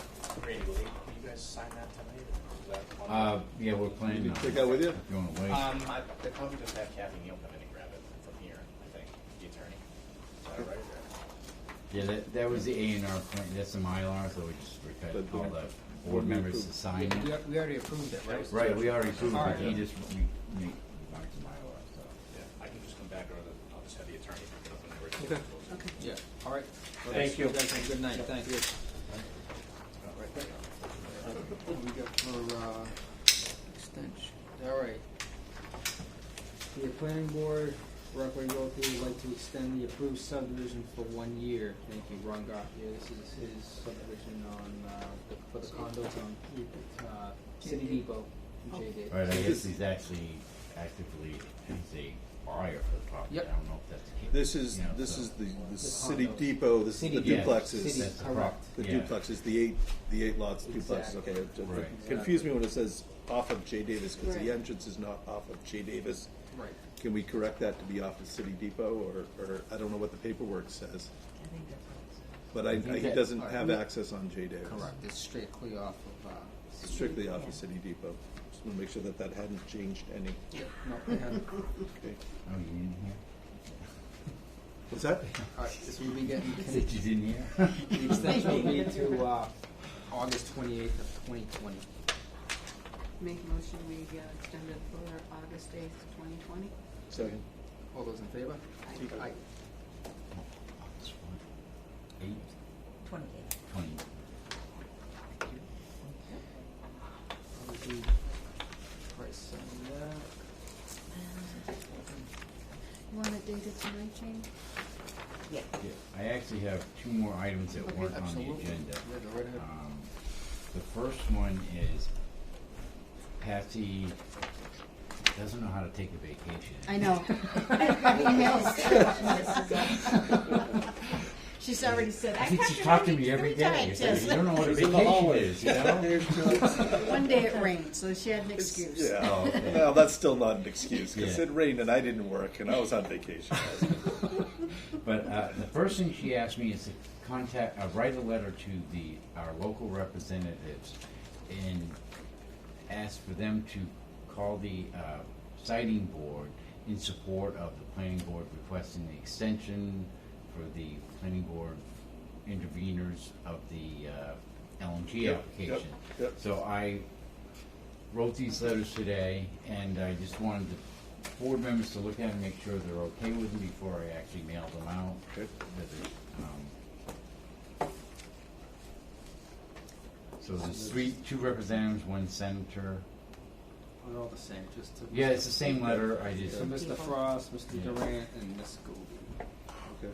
Randy, will they, will you guys sign that tonight? or is that one- Uh, yeah, we're planning. You on can take it. that with you? If you wanna wait. Uh, Um, I, they probably just have Kathy Neal come in and grab it from here, I think, the attorney. Is that right? Yeah, that, that was the A and R plan, that's the Mylar, so we just, we got But all the- the board members to sign We it. al- we already approved it, right? Right, we already approved, it, but he Alright. just, we, we, marked the Mylar, so. Yeah, I can just come back, or the- I'll just have the attorney pick it up whenever. it's- Okay. Yeah, all right. Well, Thank you. guys have a Good night, thank you. We got for, uh, extension, all right. The planning board, Rockaway Road, would like to extend the approved subdivision for one year. Thank you, Ron Goff, yeah, this is his subdivision on, uh, the- for the condos on, uh, City Depot, in J Dave. Alright, I guess he's actually actively, he's a buyer for the property, I Yep. don't know if that's the case. This is, You know, this so- is the, the The city condos. depot, this is City the Yeah, depot. duplexes. City. That's the correct. prop- The yeah. duplexes, the eight, the eight lots, duplexes, okay. it- it Right. Confused me when it says off of J Davis, because Right. the entrance is not off of J Davis. Right. Can we correct that to be off of City Depot, or, or, I don't know what the paperwork says, I think that's what it said. but I, I think I- he that- doesn't Alright. have access on J Davis. Correct, it's strictly off of, uh, Strictly off Yeah. of City Depot, just wanna make sure that that hadn't changed any, no, they haven't. okay? Oh, you in What's that? All right, so we'll be getting, here? Said you's in here? the extension will be to, uh, August twenty-eighth of twenty twenty. Make a motion, we uh, extend it for August eighth, twenty twenty. Second. All those in favor? Aye. Aye. Eight, Twenty eighth. twenty, Obviously, Price on that. You want a date of tonight, Jane? Yeah. yeah, I actually have two more items that Okay, weren't on the absolutely. agenda. Yeah, go right ahead. Um, The first one is Patsy doesn't know how to take a vacation. I know. I've emailed her. She's already said, I I have to think she talked to me every day. She said, You don't know what a vacation is, you know? One day it rained, so she had an excuse. Yeah. Oh, okay. Well, that's still not an excuse because Yeah. it rained and I didn't work and I was on vacation. But uh, the first thing she asked me is to contact, uh, write a letter to the, our local representatives and ask for them to call the uh, siting board in support of the planning board requesting the extension for the planning board interveners of the uh, LNG Yep, yep, application. yep. So I wrote these letters today, and I just wanted the board members to look at and make sure they're okay with them before I actually mail them out. Okay. But, um, So there's three, two representatives, one senator. We're all the same, just to. Yeah, it's the same letter, I just So Mr. Frost, Mr. Yeah. Durant, and Ms. Gould. Okay.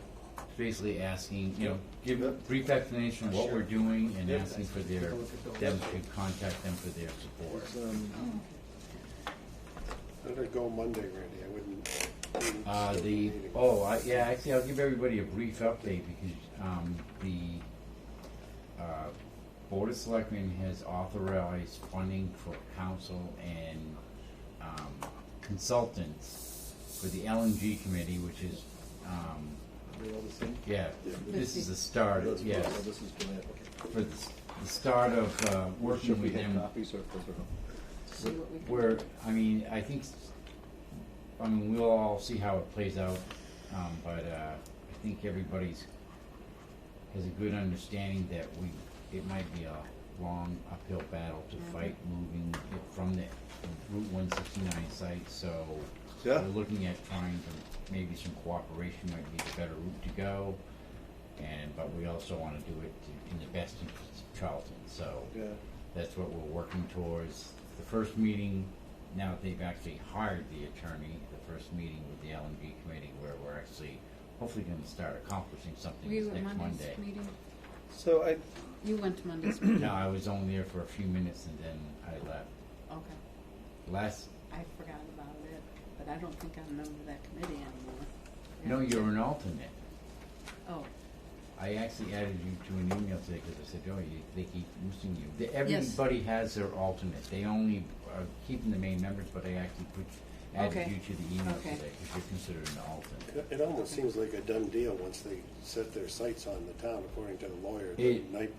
basically asking, you know, give a Yep. brief explanation of what we're doing and Yep. asking for their, them to contact them for their support. It's, um, I'm gonna go Monday, Randy, I wouldn't. I wouldn't Uh, skip the, meeting. oh, I, yeah, actually, I'll give everybody a brief update because, um, the, uh, Board of Selectmen has authorized funding for council and, um, consultants for the LNG committee, which is, um, are they all the same? yeah, this is the start, That's- yes, oh, this is Durant, okay. for the, s- the start of, uh, Should working we with have them. copies or if those are- See what we can- Where, I mean, I think, s- I mean, we'll all see how it plays out, um, but, uh, I think everybody's has a good understanding that we, it might be a long uphill battle to Mhm. fight moving it from the Route one sixty-nine site, so Yeah. we're looking at trying to, maybe some cooperation might be the better route to go, and, but we also wanna do it to- in the best interest of Charlton, so. Yeah. That's what we're working towards. The first meeting, now that they've actually hired the attorney, the first meeting with the L and B committee where we're actually hopefully gonna start accomplishing something Were this you at next Monday. Monday's meeting? So I, You went to Monday's meeting, No, I was only there for a few minutes and then I left. okay. Last, I forgot about it, but I don't think I'm a member of that committee anymore. no, you're an alternate. Oh, I actually added you to an email today because I said, oh, you, they keep missing you. The- Everybody has their alternate. They only are keeping the main members, but I actually put, added Okay. you to the email Okay. today because you're considered an alternate. It- It almost seems like a done deal once they set their sights on the town, according to the lawyer, the It- night